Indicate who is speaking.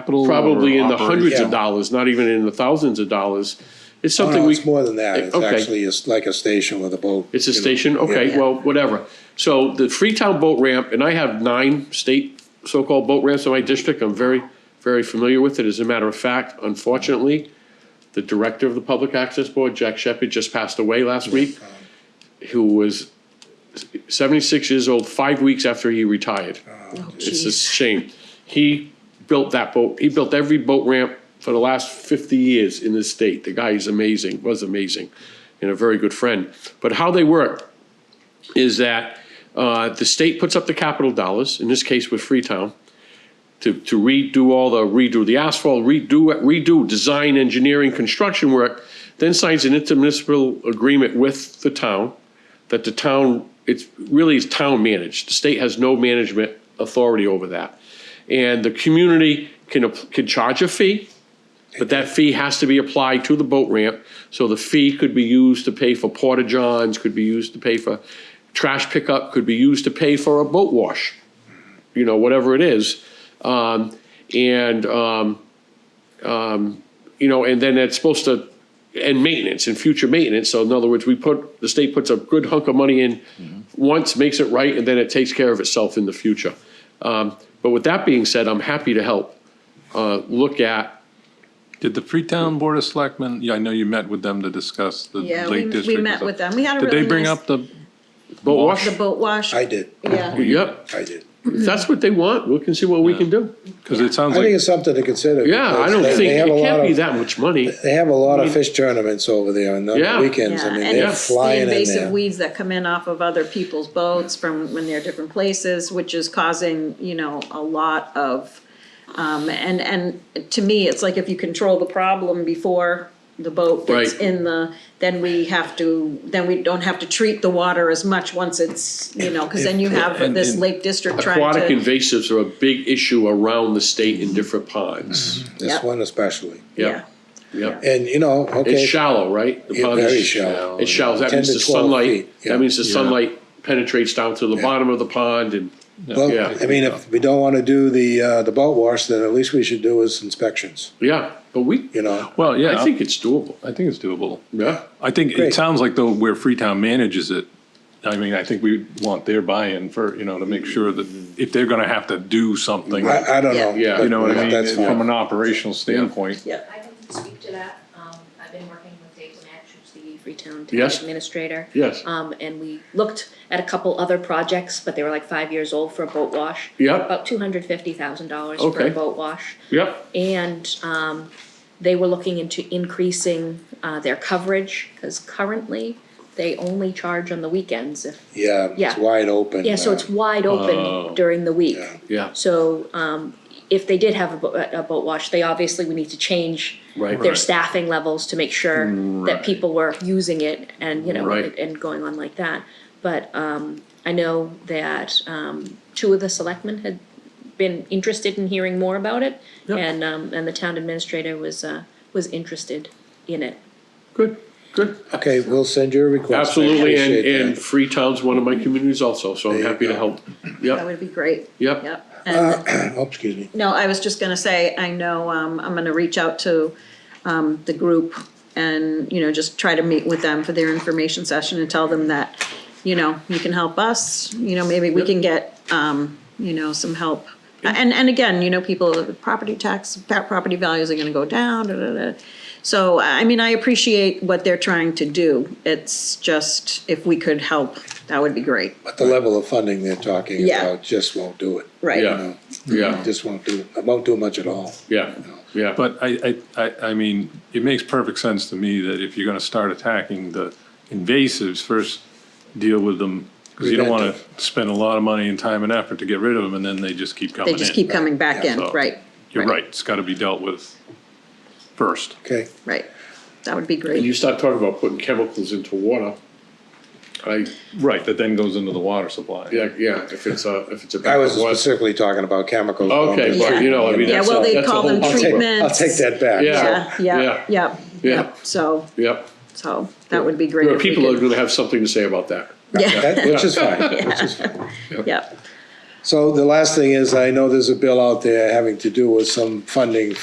Speaker 1: capital?
Speaker 2: probably
Speaker 1: or
Speaker 2: in the
Speaker 1: operating?
Speaker 2: hundreds
Speaker 3: Yeah.
Speaker 2: of dollars, not even in the thousands of dollars. It's
Speaker 3: Oh, No,
Speaker 2: something
Speaker 3: no,
Speaker 2: we.
Speaker 3: it's more than that. It's
Speaker 2: Okay.
Speaker 3: actually, it's like a station with a boat.
Speaker 2: It's a
Speaker 3: you know.
Speaker 2: station, okay,
Speaker 3: Yeah.
Speaker 2: well, whatever. So the Freetown Boat Ramp, and I have nine state so-called boat ramps in my district, I'm very, very familiar with it. As a matter of fact, unfortunately, the director of the Public Access Board, Jack Shepherd, just passed away last week, who was seventy-six years old, five weeks after he retired.
Speaker 3: Oh,
Speaker 2: It's a shame. He built that boat, he built every boat ramp for the last fifty years in this state. The guy is amazing, was amazing, and a very good friend. But how they work is that uh, the state puts up the capital dollars, in this case with Freetown, to, to redo all the, redo the asphalt, redo, redo design, engineering, construction work, then signs an intermunicipal agreement with the town that the town, it's really is town managed. The state has no management authority over that. And the community can, app- can charge a fee, but that fee has to be applied to the boat ramp. So the fee could be used to pay for porta johns, could be used to pay for trash pickup, could be used to pay for a boat wash, you know, whatever it is. Um, and, um, you know, and then it's supposed to, and maintenance and future maintenance. So in other words, we put, the state puts a good hunk of money in once, makes it right, and then it takes care of itself in the future. Um, But with that being said, I'm happy to help uh, look at,
Speaker 4: Did the Freetown Board of Selectmen, yeah, I know you met with them to discuss the
Speaker 5: Yeah, we,
Speaker 4: Lake District.
Speaker 5: we
Speaker 4: and
Speaker 5: met
Speaker 4: stuff.
Speaker 5: with them. We had a
Speaker 4: Did
Speaker 5: really
Speaker 4: they bring
Speaker 5: nice-
Speaker 4: up the,
Speaker 2: boat wash.
Speaker 5: The boat wash.
Speaker 3: I did,
Speaker 5: Yeah.
Speaker 2: Yep,
Speaker 3: I did.
Speaker 2: if that's what they want, we can see what we can do.
Speaker 4: because it sounds
Speaker 3: I think
Speaker 4: like,
Speaker 3: it's something to consider.
Speaker 2: Yeah, I
Speaker 3: because
Speaker 2: don't
Speaker 3: they-
Speaker 2: think,
Speaker 3: they have a
Speaker 2: it
Speaker 3: lot
Speaker 2: can't be
Speaker 3: of-
Speaker 2: that much money.
Speaker 3: They have a lot of fish tournaments over there on the
Speaker 2: Yeah.
Speaker 3: weekends.
Speaker 5: Yeah,
Speaker 3: I mean,
Speaker 5: and
Speaker 3: they're
Speaker 5: it's the
Speaker 3: flying in
Speaker 5: invasive
Speaker 3: there.
Speaker 5: weeds that come in off of other people's boats from when they're different places, which is causing, you know, a lot of, um, and, and to me, it's like if you control the problem before the boat gets
Speaker 2: Right.
Speaker 5: in the, then we have to, then we don't have to treat the water as much once it's, you know, cause then you have
Speaker 4: And-
Speaker 5: this
Speaker 4: and
Speaker 5: Lake District trying
Speaker 2: Aquatic
Speaker 5: to.
Speaker 2: invasives are a big issue around the state in different ponds.
Speaker 3: This
Speaker 5: Yep.
Speaker 3: one especially.
Speaker 2: Yep, yep.
Speaker 3: And, you know, okay.
Speaker 2: It's shallow, right? The
Speaker 3: Yeah,
Speaker 2: pond is-
Speaker 3: very shallow.
Speaker 2: It's shallow, that
Speaker 3: 10
Speaker 2: means
Speaker 3: to
Speaker 2: the
Speaker 3: 12
Speaker 2: sunlight,
Speaker 3: feet, yeah.
Speaker 2: that means the sunlight penetrates down to the bottom of the pond and,
Speaker 3: Well,
Speaker 2: yeah.
Speaker 3: I mean, if we don't want to do the, uh, the boat wash, then at least we should do is inspections,
Speaker 2: yeah, but we,
Speaker 3: you know?
Speaker 4: well, yeah,
Speaker 2: I think it's doable,
Speaker 4: I think it's doable.
Speaker 2: yeah.
Speaker 4: I think it
Speaker 3: Great.
Speaker 4: sounds like though where Freetown manages it, I mean, I think we want their buy-in for, you know, to make sure that if they're going to have to do something,
Speaker 3: I, I don't know.
Speaker 5: Yeah.
Speaker 2: Yeah.
Speaker 4: you know what I mean,
Speaker 3: That's
Speaker 4: from
Speaker 3: fine.
Speaker 4: an operational standpoint.
Speaker 5: Yeah.
Speaker 6: I can speak to that. Um, I've been working with Dave Match, who's the Freetown Town
Speaker 2: Yes.
Speaker 6: Administrator.
Speaker 2: Yes.
Speaker 6: Um, and we looked at a couple other projects, but they were like five years old for a boat wash.
Speaker 2: Yep.
Speaker 6: About two hundred fifty thousand dollars for
Speaker 2: Okay.
Speaker 6: a boat wash.
Speaker 2: Yep,
Speaker 6: And, um, they were looking into increasing, uh, their coverage, cause currently they only charge on the weekends if
Speaker 3: Yeah, it's
Speaker 6: Yeah.
Speaker 3: wide open.
Speaker 6: yeah, so
Speaker 3: uh,
Speaker 6: it's wide
Speaker 2: Oh.
Speaker 6: open during the week.
Speaker 2: yeah,
Speaker 6: So, um, if they did have a boat, a boat wash, they obviously would need to change
Speaker 2: Right.
Speaker 6: their
Speaker 2: Right.
Speaker 6: staffing levels to make sure that people were using it and, you know,
Speaker 2: Right.
Speaker 6: and going on like that. But, um, I know that, um, two of the selectmen had been interested in hearing more about it.
Speaker 2: Yeah.
Speaker 6: And, um, and the town administrator was, uh, was interested in it.
Speaker 2: good, good.
Speaker 3: Okay, we'll send you a request. I
Speaker 2: Absolutely, and,
Speaker 3: appreciate
Speaker 2: and
Speaker 3: that.
Speaker 2: Freetown's one of my communities also, so I'm
Speaker 3: There you
Speaker 2: happy to
Speaker 3: go.
Speaker 2: help.
Speaker 5: That
Speaker 2: Yep,
Speaker 5: would be great.
Speaker 2: Yep.
Speaker 5: Yep. And
Speaker 3: Oh, excuse me.
Speaker 5: No, I was just gonna say, I know, um, I'm gonna reach out to, um, the group and, you know, just try to meet with them for their information session and tell them that, you know, you can help us, you know, maybe we can get, um, you know, some help. And, and again, you know, people, property tax, pa- property values are gonna go down, da, da, da. So, I mean, I appreciate what they're trying to do. It's just, if we could help, that would be great,
Speaker 3: But the level of funding they're talking
Speaker 5: Yeah.
Speaker 3: about just won't do it.
Speaker 5: right?
Speaker 2: Yeah.
Speaker 3: No,
Speaker 2: yeah,
Speaker 3: Just won't do, it won't do much at all.
Speaker 2: yeah, yeah.
Speaker 4: But I, I, I, I mean, it makes perfect sense to me that if you're gonna start attacking the invasives, first deal with them. Cause you don't wanna spend a lot of money and time and effort to get rid of them and then they just keep coming
Speaker 5: They
Speaker 4: in.
Speaker 5: just keep coming back in,
Speaker 4: So,
Speaker 5: right,
Speaker 4: You're right, it's gotta be dealt with first.
Speaker 3: Okay,
Speaker 5: right. That would be great.
Speaker 2: And you start talking about putting chemicals into water, I,
Speaker 4: Right, that then goes into the water supply.
Speaker 2: yeah, yeah, if it's a, if it's a.
Speaker 3: I was
Speaker 2: What-
Speaker 3: specifically talking about chemicals.
Speaker 2: Okay,
Speaker 5: Yeah.
Speaker 2: well, you know, I mean,
Speaker 5: Yeah,
Speaker 2: that's
Speaker 5: well,
Speaker 2: a-
Speaker 5: they
Speaker 2: that's a
Speaker 5: call
Speaker 2: whole
Speaker 5: them
Speaker 3: I'll
Speaker 2: bunch of-
Speaker 3: take,
Speaker 5: treatment.
Speaker 3: I'll take that back.
Speaker 2: Yeah.
Speaker 5: Yeah, yeah, yeah,
Speaker 2: Yeah.
Speaker 5: yeah. So
Speaker 2: Yep,
Speaker 5: So that would be great.
Speaker 2: there are
Speaker 5: if we
Speaker 2: people that are
Speaker 5: could-
Speaker 2: gonna have something to say about that.
Speaker 5: Yeah,
Speaker 3: That- Which is fine, which is fine.
Speaker 5: yeah.
Speaker 3: So the last thing is, I know there's a bill out there having to do with some funding